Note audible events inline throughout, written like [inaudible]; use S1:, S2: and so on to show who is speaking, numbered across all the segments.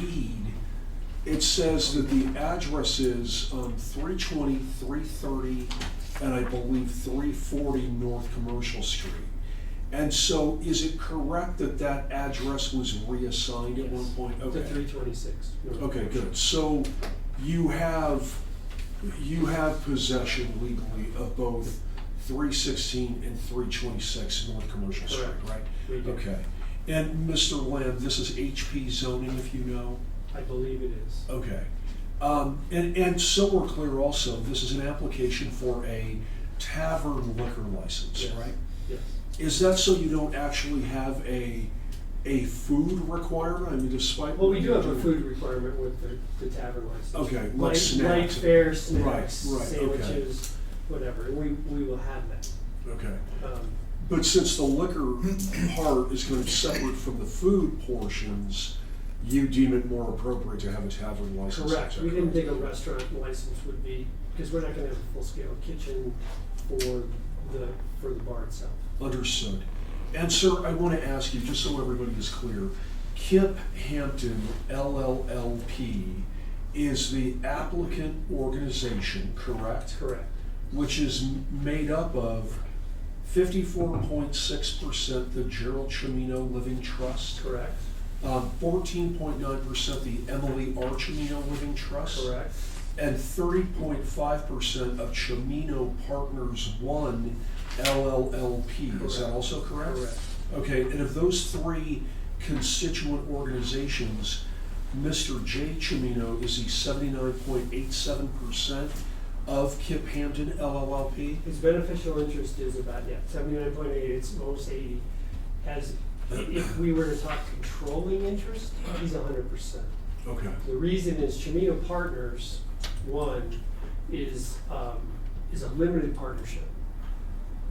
S1: deed, it says that the address is um, 320, 330, and I believe 340 North Commercial Street. And so is it correct that that address was reassigned at one
S2: Yes.
S1: point?
S2: To
S1: Okay.
S2: three twenty-six.
S1: Okay, good. So you have, you have possession legally of both 316 and 326 North Commercial Street,
S2: Correct.
S1: right?
S2: We do.
S1: Okay. And Mr. Lamb, this is HP zoning, if you know?
S2: I believe it is.
S1: Okay. Um, And, and so we're clear also, this is an application for a tavern liquor license,
S2: Yes.
S1: right?
S2: Yes.
S1: Is that so you don't actually have a, a food requirement? I mean, despite.
S2: Well, we do have a food requirement with the, the tavern license.
S1: Okay, like
S2: Light, light
S1: snacks.
S2: fare, snacks,
S1: Right, right, okay.
S2: sandwiches, whatever, we, we will have that.
S1: Okay.
S2: Um,
S1: But since the liquor part is kind of separate from the food portions, you deem it more appropriate to have a tavern license.
S2: Correct,
S1: is that
S2: we didn't think a
S1: correct?
S2: restaurant license would be, because we're not gonna have a full-scale kitchen for the, for the bar itself.
S1: Understood. And sir, I want to ask you, just so everybody is clear, Kip Hampton LLLP is the applicant organization, correct?
S2: Correct,
S1: Which is m- made up of fifty-four point six percent the Gerald Chimino Living Trust. um,
S2: correct,
S1: fourteen point nine percent the Emily R. Chimino Living Trust.
S2: correct,
S1: And thirty point five percent of Chimino Partners One LLLP. Is that
S2: Correct.
S1: also correct?
S2: correct.
S1: Okay, and of those three constituent organizations, Mr. J. Chimino is the seventy-nine point eight seven percent of Kip Hampton LLLP.
S2: His beneficial interest is about, yeah, seventy-nine point eight, it's almost eighty. Has, i- if we were to talk controlling interest, he's hundred percent.
S1: Okay.
S2: The reason is Chimino Partners, one, is, um, is a limited partnership.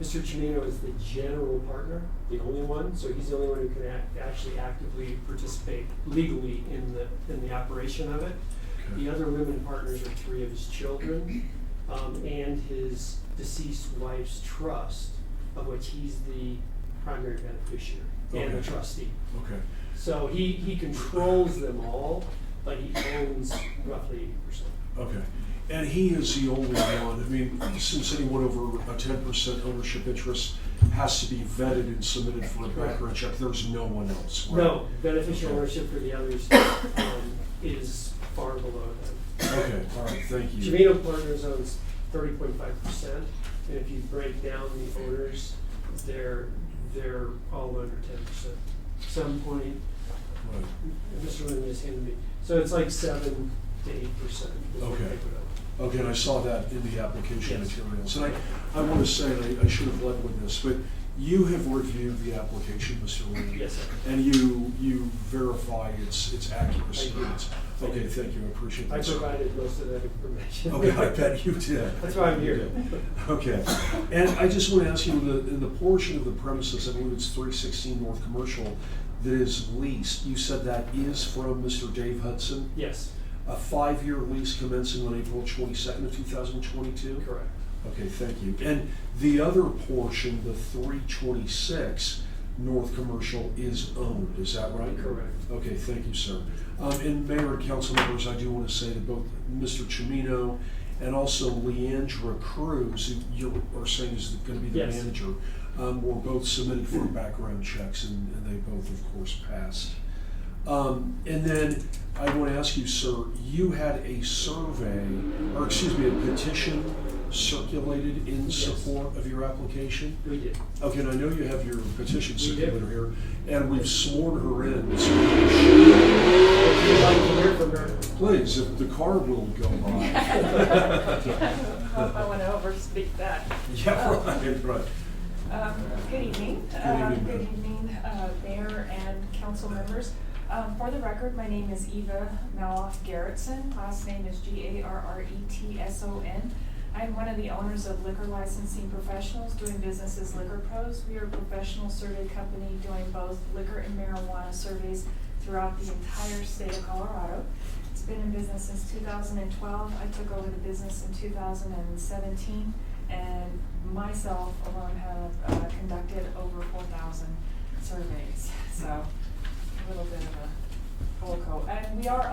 S2: Mr. Chimino is the general partner, the only one, so he's the only one who can act, actually actively participate legally in the, in the operation of it. The other limited partners are three of his children, um, and his deceased wife's trust, of which he's the primary beneficiary and the
S1: Okay.
S2: trustee.
S1: Okay.
S2: So he, he controls them all, but he owns roughly eighty percent.
S1: Okay. And he is the only one, I mean, since anyone over a ten percent ownership interest has to be vetted and submitted for a background check, there's no one else, right?
S2: No, beneficial ownership for the others, um, is far below them.
S1: Okay, all right, thank you.
S2: Chimino Partners owns thirty point five percent, and if you break down the owners, they're, they're all under ten percent. Some point,
S1: Right.
S2: Mr. Lynn just handed me, so it's like seven to eight percent.
S1: Okay. Okay, and I saw that in the application
S2: Yes.
S1: materials. And I, I want to say, and I, I should have led with this, but you have reviewed the application, Mr. Lee.
S2: Yes, sir.
S1: And you, you verify its, its accuracy.
S2: I did.
S1: It's- Okay, thank you, I appreciate that.
S2: I
S1: sir.
S2: provided most of that information.
S1: Okay, I bet you did.
S2: [laughs] That's why I'm here.
S1: You did. Okay, and I just want to ask you, in the, in the portion of the premises, I believe it's three sixteen North Commercial, that is leased, you said that is from Mr. Dave Hudson?
S2: Yes,
S1: A five-year lease commencing on April twenty-second of two thousand twenty-two?
S2: correct.
S1: Okay, thank you. And the other portion, the three twenty-six North Commercial is owned, is that right?
S2: Correct.
S1: Okay, thank you, sir. Um, and Mayor and council members, I do want to say that both Mr. Chimino and also Leandra Cruz, who you are saying is going to be the
S2: Yes.
S1: manager, um, were both submitted for background checks and, and they both, of course, passed. Um, and then I want to ask you, sir, you had a survey, or excuse me, a petition circulated in
S2: Yes.
S1: support of your application?
S2: We did.
S1: Okay, and I know you have your petition
S2: We do.
S1: circulator here, and we've sworn her in. so we should-
S2: If you'd like to hear from her,
S1: Please, if the car will go [laughs]
S2: [laughs]
S3: Hope I
S1: by.
S3: want to overspeak that.
S1: Yeah, right, right.
S3: Um, Good evening.
S1: Good
S3: Uh,
S1: evening,
S3: Good
S1: ma'am.
S3: evening, uh, Mayor and council members. Um, For the record, my name is Eva Maloff Garrettson. Last name is E G-A-R-R-E-T-S-O-N. I'm one of the owners of Liquor Licensing Professionals doing business as Liquor Pros. We are a professional survey company doing both liquor and marijuana surveys throughout the entire state of Colorado. It's been in business since 2012. I took over the business in 2017, and myself alone have uh, conducted over 4,000 surveys. So a little bit of a Holco. And we are